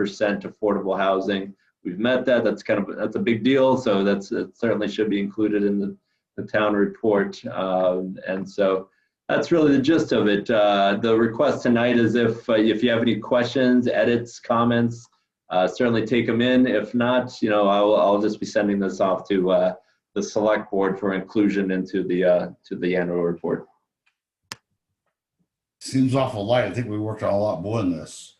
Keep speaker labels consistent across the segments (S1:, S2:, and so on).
S1: percent affordable housing. We've met that. That's kind of, that's a big deal. So that's, it certainly should be included in the, the town report. Um, and so that's really the gist of it. Uh, the request tonight is if, uh, if you have any questions, edits, comments, uh, certainly take them in. If not, you know, I'll, I'll just be sending this off to, uh, the select board for inclusion into the, uh, to the annual report.
S2: Seems awful light. I think we worked on a lot more than this.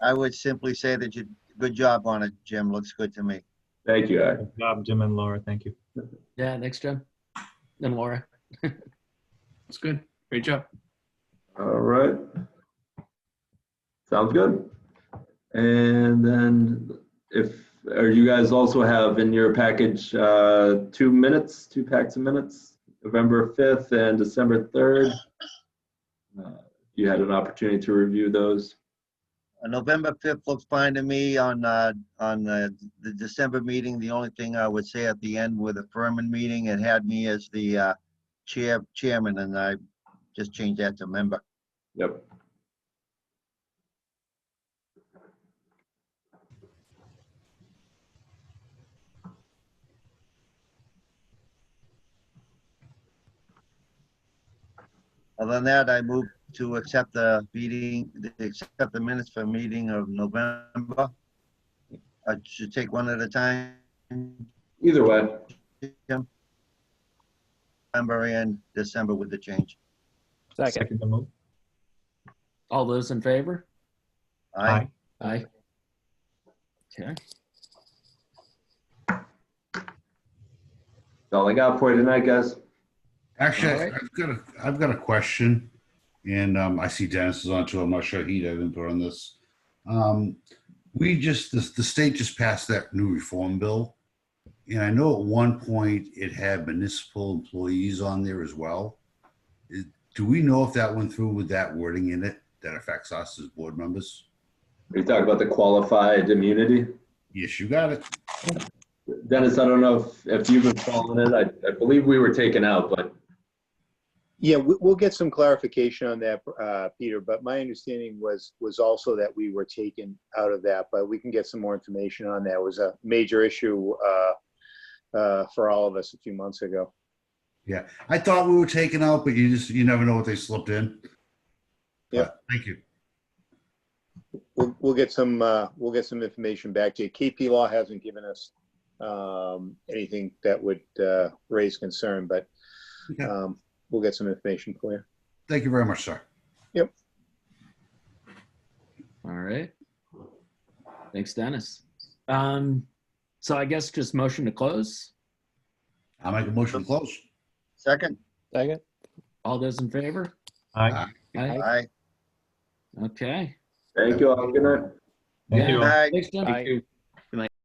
S3: I would simply say that you, good job on it, Jim. Looks good to me.
S1: Thank you, Eric.
S4: Good job, Jim and Laura. Thank you.
S5: Yeah, thanks, Jim. And Laura. That's good. Great job.
S1: All right. Sounds good. And then if, or you guys also have in your package, uh, two minutes, two packs of minutes, November 5th and December 3rd. Uh, You had an opportunity to review those.
S3: Uh, November 5th looks fine to me on, uh, on uh, the December meeting. The only thing I would say at the end with the Furman meeting, it had me as the uh, chair, chairman, and I just changed that to member.
S1: Yep.
S3: Other than that, I move to accept the meeting, accept the minutes for meeting of November. I should take one at a time,
S1: Either way.
S3: November and December with the change.
S6: Second.
S4: the move.
S5: All those in favor?
S3: Aye.
S5: Aye. Okay.
S1: That's all I got for you tonight, guys.
S2: Actually,
S5: All right.
S2: I've got a, I've got a question, and um, I see Dennis is on too. I'm not sure he'd have input on this. Um, we just the, the state just passed that new reform bill, and I know at one point it had municipal employees on there as well. Is- do we know if that went through with that wording in it that affects us as board members?
S1: Are you talking about the qualified immunity?
S2: Yes, you got it.
S1: Dennis, I don't know if, if you've been following it. I, I believe we were taken out, but
S7: Yeah, we- we'll get some clarification on that, uh, Peter, but my understanding was, was also that we were taken out of that, but we can get some more information on that. It was a major issue uh, uh, for all of us a few months ago.
S2: I thought we were taken out, but you just you never know what they slipped in.
S7: Yeah.
S2: But Thank you.
S7: We'll, we'll get some, uh, we'll get some information back to you. KP Law hasn't given us um, anything that would uh, raise concern, but
S2: Okay.
S7: um, we'll get some information for you.
S2: Thank you very much, sir.
S5: All right. Thanks, Dennis. Um, so I guess just motion to close.
S2: I make a motion to close.
S3: Second?
S6: Second.
S5: All those in favor?
S4: Aye.
S5: Aye.
S3: Aye.
S5: Okay.
S1: thank you all. Good night.
S4: Thank
S5: Yeah.
S4: you. all.
S3: Aye.
S5: Thanks, Jim.
S6: Aye.